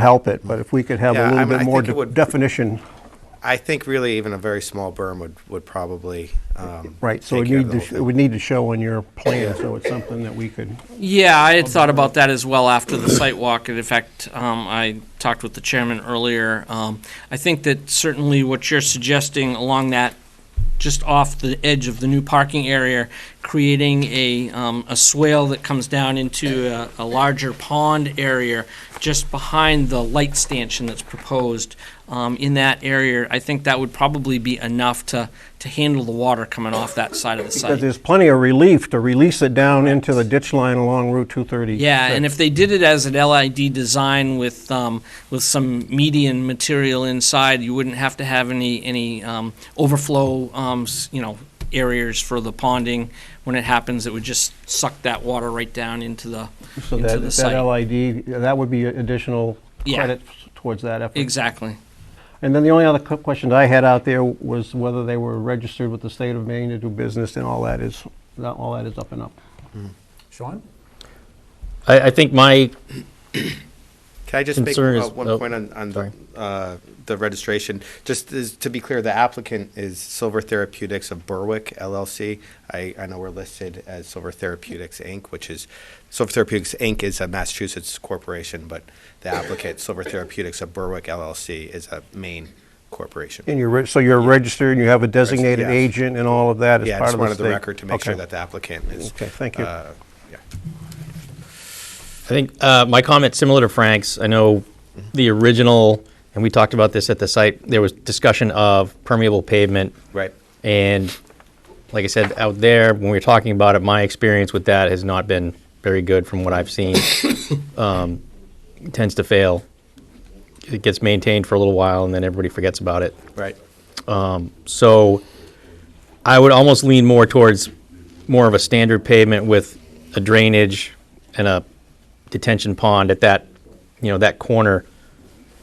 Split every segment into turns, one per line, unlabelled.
help it, but if we could have
Yeah, I
a little
mean, I
bit more
think it
de-
would-
definition,
I think really even a very small berm would, would probably. um,
right, so
take
it
care of
need
the
to,
whole
sh- it
thing.
would need to show on your plan, so it's something that we could,
Yeah, I had thought about that as well after the site walk, and in fact, um, I talked with the chairman earlier. Um, I think that certainly what you're suggesting along that, just off the edge of the new parking area, creating a, um, a swale that comes down into a, a larger pond area just behind the light stanchion that's proposed, um, in that area, I think that would probably be enough to, to handle the water coming off that side of the site.
but there's plenty of relief to release it down into the ditch line along Route 230.
Yeah, and if they did it as an LID design with um, with some median material inside, you wouldn't have to have any any um, overflow, um, s- you know, areas for the ponding. When it happens, it would just suck that water right down into the
So
into
that,
the
that
site.
LID, that would be additional
Yeah.
credit towards that effort.
exactly.
And then the only other cu- question I had out there was whether they were registered with the state of Maine to do business, and all that is, that- all that is up and up.
Sean?
I, I think my,
Can I just make
concern
uh,
is-
one
oh,
point on, on the,
sorry.
uh, the registration? Just is- to be clear, the applicant is Silver Therapeutics of Berwick LLC. I, I know we're listed as Silver Therapeutics, Inc., which is, Silver Therapeutics, Inc. is a Massachusetts corporation, but the applicant, Silver Therapeutics of Berwick LLC, is a Maine corporation.
And you're, re- so you're registered, and you have a designated
yeah.
agent and all of that as
Yeah, I
part
just
of the state?
wanted the record to make sure
Okay.
that the applicant is.
Okay, thank you.
uh, yeah.
I think, uh, my comment similar to Frank's, I know the original, and we talked about this at the site, there was discussion of permeable pavement.
Right.
And like I said, out there, when we were talking about it, my experience with that has not been very good from what I've seen. Um, it Tends to fail. It gets maintained for a little while and then everybody forgets about it.
Right.
So I would almost lean more towards more of a standard pavement with a drainage and a detention pond at that, you know, that corner,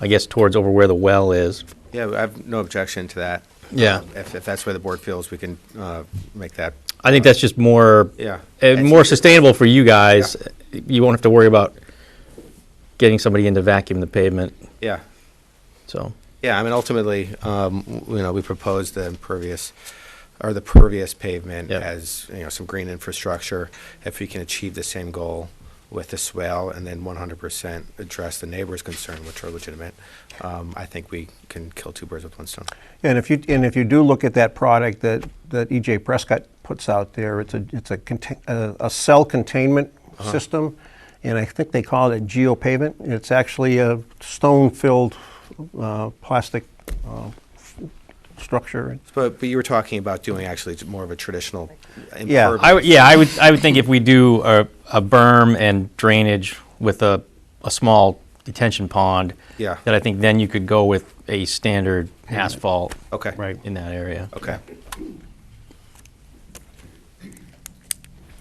I guess towards over where the well is.
Yeah, I have no objection to that.
Yeah.
Um, If, if that's where the board feels, we can uh, make that.
I think that's just more,
Yeah.
eh, more sustainable for you guys. You won't have to worry about getting somebody in to vacuum the pavement,
Yeah.
so.
Yeah, I mean, ultimately, um, w- you know, we propose the impervious, or the pervious pavement
Yep.
as, you know, some green infrastructure. If we can achieve the same goal with the swale and then one hundred percent address the neighbor's concern, which are legitimate, um, I think we can kill two birds with one stone.
And if you, and if you do look at that product that, that EJ Prescott puts out there, it's a, it's a, contain- a, a cell containment system, and I think they call it geopavement. It's actually a stone-filled uh, plastic uh, f- structure.
But, but you were talking about doing actually t- more of a traditional
Yeah.
impervious.
I would, yeah, I would, I would think if we do a, a berm and drainage with a, a small detention pond.
Yeah.
That I think then you could go with a standard asphalt.
Okay.
Right.
In that area.
Okay.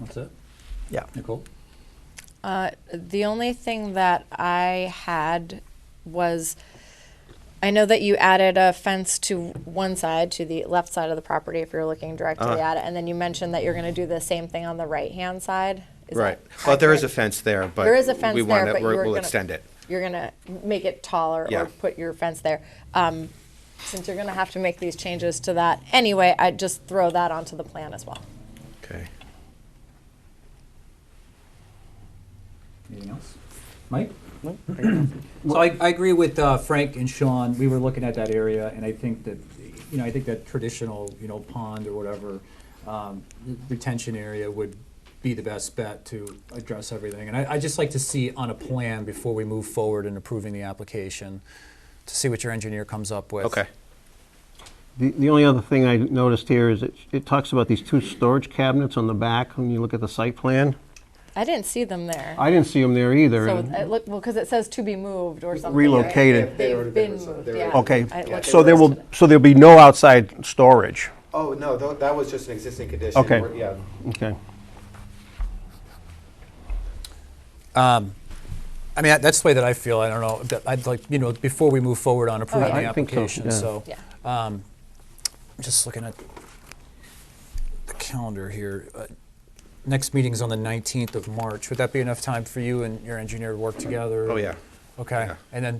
That's it?
Yeah.
Nicole?
The only thing that I had was, I know that you added a fence to one side, to the left side of the property, if you're looking directly
Uh-huh.
at it, and then you mentioned that you're going to do the same thing on the right-hand side. Is that
Right. Well, there is a
accurate?
fence there, but.
There is a fence
we want
there,
to
but you were
We'll
gonna-
extend it.
You're going to make it taller
Yeah.
or put your fence there. Um, Since you're going to have to make these changes to that anyway, I'd just throw that onto the plan as well.
Okay.
Anything else? Mike? So I, I agree with uh, Frank and Sean. We were looking at that area, and I think that, you know, I think that traditional, you know, pond or whatever um, retention area would be the best bet to address everything. And I, I just like to see on a plan before we move forward in approving the application to see what your engineer comes up with.
Okay.
The, the only other thing I noticed here is it, it talks about these two storage cabinets on the back when you look at the site plan.
I didn't see them there.
I didn't see them there either.
So uh,
and-
it look, well, because it says to be moved or something. right?
Relocated.
They've been moved, yeah.
Okay,
I looked
so
at
there
this
will,
today.
so there'll be no outside storage.
Oh, no, tho- that was just an existing condition.
Okay.
We're- Yeah.
Okay.
I mean, that's the way that I feel. I don't know. but I'd like, you know, before we move forward on approving
yeah.
the
I think so,
application,
yeah.
so.
Yeah.
um, I'm Just looking at the calendar here. Uh, Next meeting's on the 19th of March. Would that be enough time for you and your engineer to work together?
Oh, yeah.
Okay.
Yeah.
And then